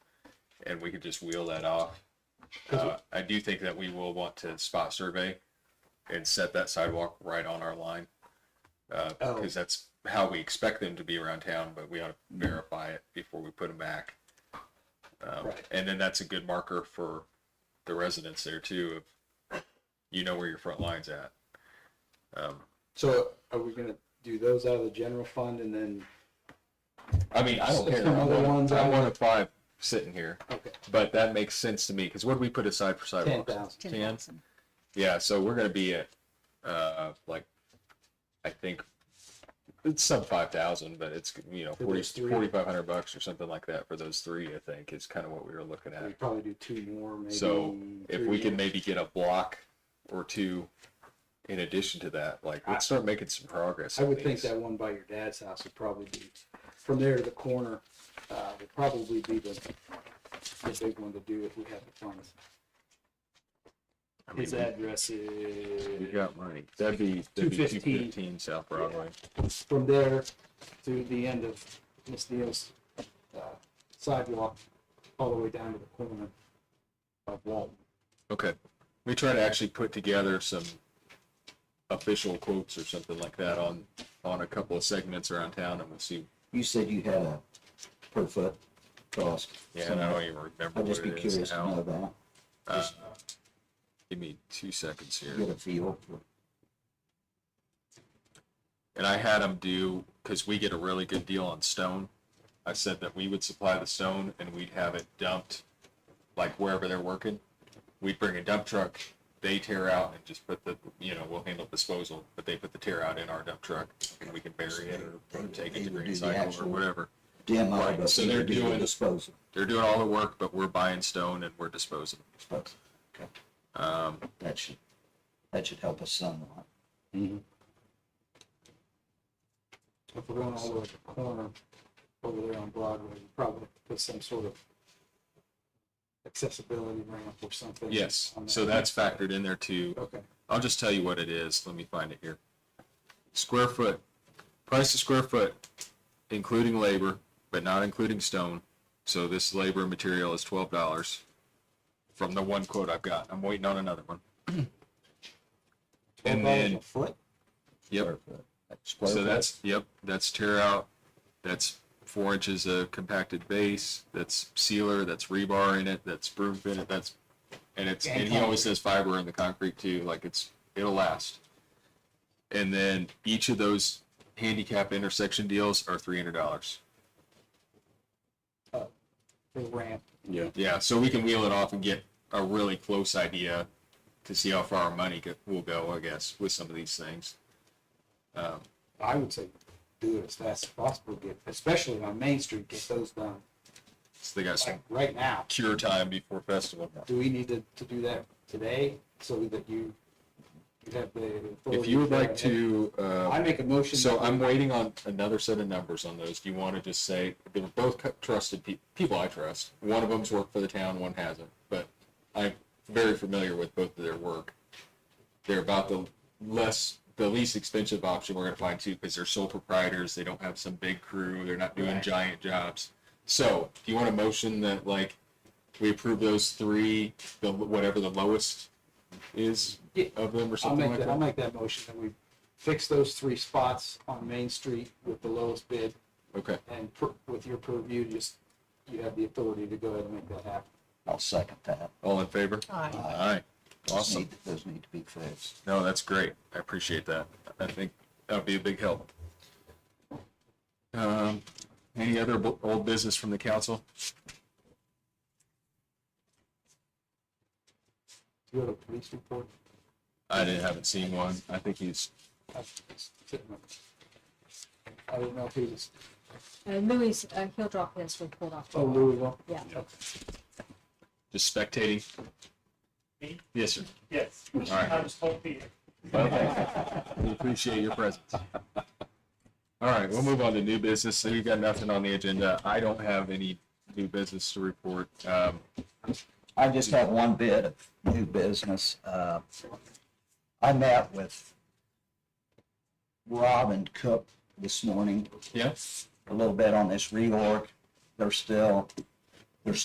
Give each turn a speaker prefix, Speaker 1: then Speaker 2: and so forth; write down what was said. Speaker 1: and we could just wheel that off. Uh, I do think that we will want to spot survey and set that sidewalk right on our line. Uh,
Speaker 2: Oh.
Speaker 1: because that's how we expect them to be around town, but we ought to verify it before we put them back. Um,
Speaker 2: Right.
Speaker 1: and then that's a good marker for the residents there too, of, you know where your front line's at. Um,
Speaker 2: So are we gonna do those out of the general fund and then,
Speaker 1: I mean, I don't
Speaker 2: Stick
Speaker 1: care.
Speaker 2: some
Speaker 1: I
Speaker 2: other
Speaker 1: want,
Speaker 2: ones
Speaker 1: I
Speaker 2: on
Speaker 1: want a five sitting here,
Speaker 2: okay,
Speaker 1: but that makes sense to me because what do we put aside for
Speaker 2: ten
Speaker 1: sidewalks?
Speaker 2: thousand?
Speaker 1: Ten. Yeah, so we're gonna be at, uh, like, I think it's some five thousand, but it's, you know,
Speaker 2: For
Speaker 1: forty,
Speaker 2: those three.
Speaker 1: forty-five hundred bucks or something like that for those three, I think, is kind of what we were looking
Speaker 2: We
Speaker 1: at.
Speaker 2: probably do two more, maybe.
Speaker 1: So If
Speaker 2: three
Speaker 1: we can
Speaker 2: more.
Speaker 1: maybe get a block or two in addition to that, like, let's start making some progress.
Speaker 2: I
Speaker 1: on
Speaker 2: would think
Speaker 1: these.
Speaker 2: that one by your dad's house would probably be, from there to the corner, uh, would probably be the, the big one to do if we have the funds.
Speaker 1: I mean,
Speaker 2: His address
Speaker 1: We
Speaker 2: is
Speaker 1: got money. That'd be, that'd be two
Speaker 2: 215.
Speaker 1: fifteen South Broadway.
Speaker 2: from there to the end of Miss Neal's, uh, sidewalk, all the way down to the corner of Walton.
Speaker 1: Okay. We try to actually put together some official quotes or something like that on, on a couple of segments around town and we'll see.
Speaker 3: You said you had a per foot cost.
Speaker 1: Yeah, and I don't even remember
Speaker 3: I'd
Speaker 1: what
Speaker 3: just be
Speaker 1: it is
Speaker 3: curious to know
Speaker 1: now.
Speaker 3: that,
Speaker 1: Uh, Give me two seconds here.
Speaker 3: get a feel for
Speaker 1: And I had them do, because we get a really good deal on stone. I said that we would supply the stone and we'd have it dumped, like wherever they're working. We'd bring a dump truck, they tear out and just put the, you know, we'll handle disposal, but they put the tear out in our dump truck and we can bury it or take it
Speaker 3: They
Speaker 1: to
Speaker 3: would
Speaker 1: green
Speaker 3: do the
Speaker 1: cycle or
Speaker 3: actual-
Speaker 1: whatever.
Speaker 3: demo,
Speaker 1: Right,
Speaker 3: but
Speaker 1: so
Speaker 3: you
Speaker 1: they're
Speaker 3: would do the
Speaker 1: doing-
Speaker 3: disposal.
Speaker 1: They're doing all the work, but we're buying stone and we're disposing.
Speaker 3: disposal. Okay.
Speaker 1: Um,
Speaker 3: That should, that should help us somewhat.
Speaker 2: If we're going all the way to the corner over there on Broadway, we probably put some sort of accessibility ramp or something.
Speaker 1: yes,
Speaker 2: on
Speaker 1: so
Speaker 2: that.
Speaker 1: that's factored in there too.
Speaker 2: Okay,
Speaker 1: I'll just tell you what it is. Let me find it here. Square foot, price of square foot, including labor, but not including stone. So this labor and material is twelve dollars from the one quote I've got. I'm waiting on another one. And
Speaker 3: $12
Speaker 1: then-
Speaker 3: a Foot?
Speaker 1: Yep.
Speaker 3: Per foot. Square
Speaker 1: So
Speaker 3: foot.
Speaker 1: that's, yep, that's tear out, that's four inches of compacted base, that's sealer, that's rebar in it, that's broom fitted, that's, and it's, and he always says fiber in the concrete too, like it's, it'll last. And then each of those handicap intersection deals are three hundred dollars.
Speaker 2: the ramp.
Speaker 4: Yeah,
Speaker 1: Yeah, so we can wheel it off and get a really close idea to see how far our money go- will go, I guess, with some of these things. Um,
Speaker 2: I would say do it as fast as possible, get, especially on Main Street, get those done,
Speaker 1: so they got some
Speaker 2: like, right now.
Speaker 1: cure time before festival.
Speaker 2: Do we need to, to do that today so that you, you have the.
Speaker 1: If
Speaker 2: authority
Speaker 1: you would
Speaker 2: go
Speaker 1: like
Speaker 2: ahead?
Speaker 1: to,
Speaker 2: I
Speaker 1: uh,
Speaker 2: make a motion.
Speaker 1: so
Speaker 2: that we-
Speaker 1: I'm waiting on another set of numbers on those. Do you want to just say, they were both cu- trusted pe- people I trust. One of them's worked for the town, one hasn't, but I'm very familiar with both of their work. They're about the less, the least expensive option we're going to find too, because they're sole proprietors. They don't have some big crew. They're not doing
Speaker 2: Right.
Speaker 1: giant jobs. So do you want a motion that like, we approve those three, the, whatever the lowest is
Speaker 2: Yeah.
Speaker 1: of them or
Speaker 2: I'll
Speaker 1: something
Speaker 2: make
Speaker 1: like
Speaker 2: that, I'll
Speaker 1: that?
Speaker 2: make that motion that we fix those three spots on Main Street with the lowest bid
Speaker 1: Okay.
Speaker 2: and per- with your purview, just, you have the authority to go ahead and make that happen.
Speaker 3: I'll second that.
Speaker 1: All in favor?
Speaker 3: Uh,
Speaker 1: Aye.
Speaker 3: those
Speaker 1: Awesome.
Speaker 3: need- Those need to be fixed.
Speaker 1: No, that's great. I appreciate that. I think that'd be a big help. Um, any other bu- old business from the council?
Speaker 2: Do you have a police report?
Speaker 1: I didn't, haven't seen one. I think he's,
Speaker 2: I I don't know if he was,
Speaker 5: Uh, Louis, uh, he'll drop his report off.
Speaker 2: oh, Louisville.
Speaker 5: Yeah.
Speaker 1: just spectating.
Speaker 6: Me?
Speaker 1: Yes, sir.
Speaker 6: Yes,
Speaker 1: right.
Speaker 6: I was told Peter.
Speaker 1: We appreciate your presence. All right, we'll move on to new business. So you've got nothing on the agenda. I don't have any new business to report. Um,
Speaker 3: I just have one bit of new business. Uh, I met with Rob and Cook this morning
Speaker 1: yeah,
Speaker 3: a little bit on this reorg. They're still